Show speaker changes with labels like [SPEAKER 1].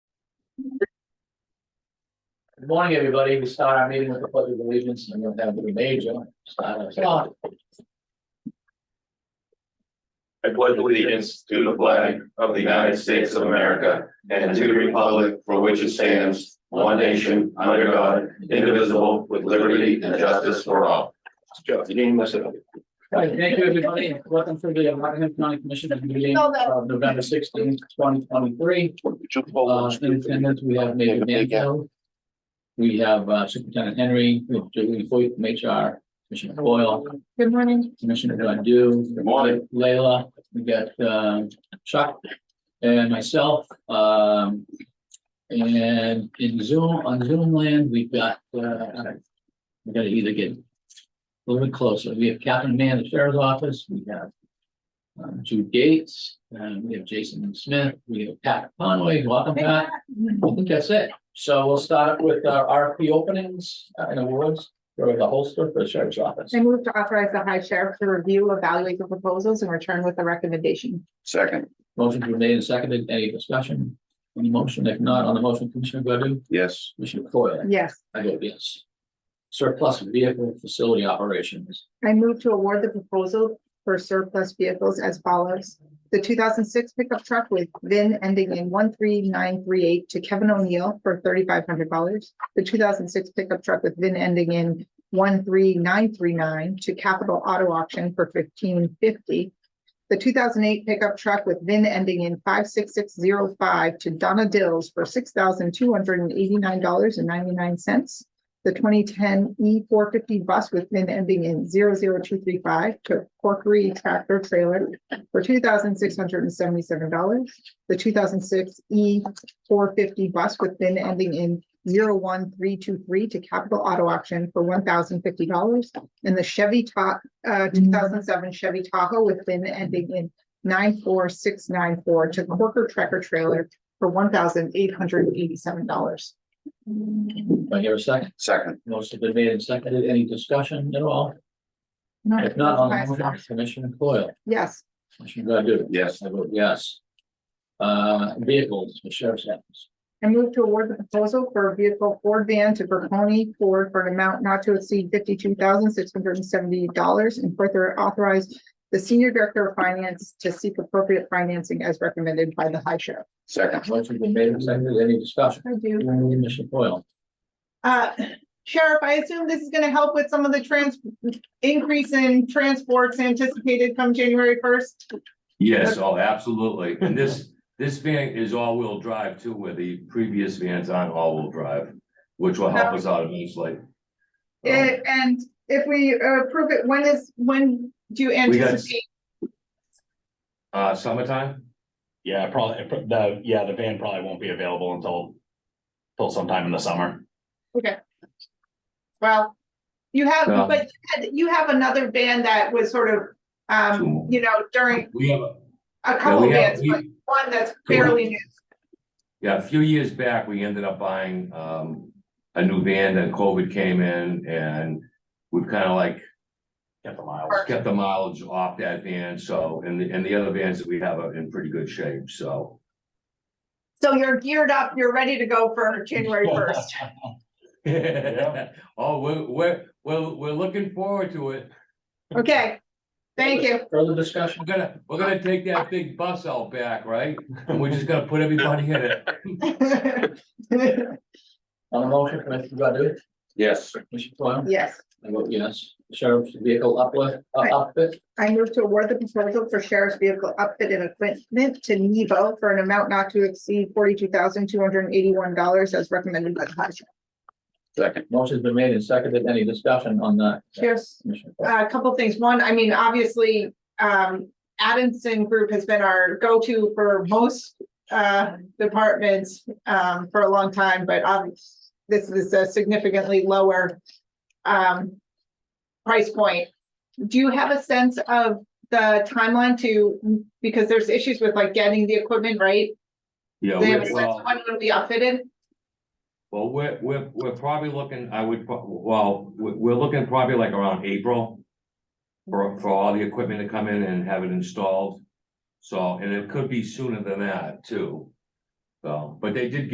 [SPEAKER 1] Good morning, everybody. We start our meeting with the pledge of allegiance and we'll have the major. I
[SPEAKER 2] I pledge allegiance to the flag of the United States of America and to the republic for which it stands, one nation, under God, indivisible, with liberty and justice for all.
[SPEAKER 1] Thank you, everybody. Welcome to the Rockingham County Commissioners meeting of November sixteenth, twenty twenty-three. Uh, in attendance, we have Major Danville. We have uh, Superintendent Henry, we have Julie Foyt, from HR, Commissioner Boyle,
[SPEAKER 3] Good morning.
[SPEAKER 1] Commissioner Godu.
[SPEAKER 2] Good morning.
[SPEAKER 1] Layla, we got um, Chuck and myself. um, And in Zoom, on Zoom land, we've got, uh, we gotta either get a little bit closer. We have Captain Mann, the sheriff's office. We have um, Jude Gates, and we have Jason Smith, we have Pat Conway. Welcome, Pat. I think that's it. So we'll start with our RFP openings uh, and awards for the holster for the sheriff's office.
[SPEAKER 3] I move to authorize the high sheriff to review, evaluate the proposals and return with a recommendation.
[SPEAKER 2] Second,
[SPEAKER 1] Motion's been made and seconded. Any discussion? Any motion? If not, on the motion, Commissioner Godu,
[SPEAKER 2] yes.
[SPEAKER 1] Commissioner Coyle,
[SPEAKER 3] Yes.
[SPEAKER 1] I vote yes. Surplus vehicle facility operations.
[SPEAKER 3] I move to award the proposal for surplus vehicles as follows. The two thousand six pickup truck with VIN ending in one three nine three eight to Kevin O'Neill for thirty-five hundred dollars. The two thousand six pickup truck with VIN ending in one three nine three nine to Capital Auto Auction for fifteen fifty. The two thousand eight pickup truck with VIN ending in five six six zero five to Donna Dills for six thousand two hundred and eighty-nine dollars and ninety-nine cents the twenty ten E four fifty bus with VIN ending in 00235 to Corkery Tractor Trailer for two thousand six hundred and seventy seven dollars. The two thousand six E four fifty bus with VIN ending in 01323 to Capital Auto Auction for one thousand fifty dollars. And the Chevy Ta- uh, two thousand seven Chevy Tahoe with VIN ending in nine four six nine four to Corker Tractor Trailer for one thousand eight hundred and eighty seven dollars.
[SPEAKER 1] Do I hear a second?
[SPEAKER 2] Second,
[SPEAKER 1] Motion's been made and seconded. Any discussion at all? If not, on the motion, Commissioner Coyle,
[SPEAKER 3] Yes,
[SPEAKER 1] Commissioner Godu.
[SPEAKER 2] yes.
[SPEAKER 1] I vote yes. Uh, vehicles, the sheriff's office.
[SPEAKER 3] I move to award the proposal for a vehicle Ford van to Bertoni Ford for an amount not to exceed fifty-two thousand six hundred and seventy dollars and further authorize the senior director of finance to seek appropriate financing as recommended by the high sheriff.
[SPEAKER 2] Second,
[SPEAKER 1] Motion's been made and seconded. Any discussion?
[SPEAKER 3] I do.
[SPEAKER 1] Commissioner Coyle,
[SPEAKER 3] Uh, Sheriff, I assume this is gonna help with some of the trans, increase in transports anticipated come January first?
[SPEAKER 1] Um,
[SPEAKER 4] Yes, oh, absolutely. And this, this van is all-wheel drive too, where the previous vans aren't all-wheel drive, which will help us out immensely. Um,
[SPEAKER 3] Eh, and if we approve it, when is, when do you
[SPEAKER 4] got-
[SPEAKER 3] anticipate?
[SPEAKER 4] Uh, summertime?
[SPEAKER 5] Yeah, probably, the, yeah, the van probably won't be available until, till sometime in the summer.
[SPEAKER 3] Okay. Well, you have,
[SPEAKER 4] Um,
[SPEAKER 3] but you had- you have another band that was sort of,
[SPEAKER 4] Two
[SPEAKER 3] um,
[SPEAKER 4] more.
[SPEAKER 3] you know, during
[SPEAKER 4] We have,
[SPEAKER 3] a
[SPEAKER 4] yeah,
[SPEAKER 3] couple
[SPEAKER 4] we have,
[SPEAKER 3] bands, but
[SPEAKER 4] we,
[SPEAKER 3] one that's fairly new.
[SPEAKER 4] yeah, a few years back, we ended up buying, um, a new van and COVID came in and we've kind of like
[SPEAKER 5] Get the miles.
[SPEAKER 4] kept the mileage off that van, so, and the, and the other vans that we have are in pretty good shape, so.
[SPEAKER 3] So you're geared up, you're ready to go for January first.
[SPEAKER 4] Oh, we're, we're, we're, we're looking forward to it.
[SPEAKER 3] Okay, thank you.
[SPEAKER 1] further discussion?
[SPEAKER 4] We're gonna, we're gonna take that big bus out back, right? And we're just gonna put everybody in it.
[SPEAKER 1] On the motion, Commissioner Godu,
[SPEAKER 2] yes.
[SPEAKER 1] Commissioner Coyle.
[SPEAKER 3] Yes.
[SPEAKER 1] I vote yes. Sheriff's vehicle uplift, uh,
[SPEAKER 3] Right.
[SPEAKER 1] outfit,
[SPEAKER 3] I move to award the proposal for sheriff's vehicle outfit and equipment to Nevo for an amount not to exceed forty-two thousand two hundred and eighty-one dollars as recommended by the high sheriff.
[SPEAKER 2] Second,
[SPEAKER 1] motion's been made and seconded. Any discussion on that?
[SPEAKER 3] Yes.
[SPEAKER 1] Commissioner Coyle?
[SPEAKER 3] uh, a couple things. One, I mean, obviously, um, Adamson Group has been our go-to for most uh, departments um, for a long time, but obviously, this is a significantly lower um, price point. Do you have a sense of the timeline to, because there's issues with like getting the equipment, right?
[SPEAKER 4] Yeah,
[SPEAKER 3] They have a
[SPEAKER 4] we're,
[SPEAKER 3] sense of
[SPEAKER 4] well,
[SPEAKER 3] when it'll be outfitted?
[SPEAKER 4] well, we're, we're, we're probably looking, I would, pro- well, we're, we're looking probably like around April. For, for all the equipment to come in and have it installed. So, and it could be sooner than that too. So, but they did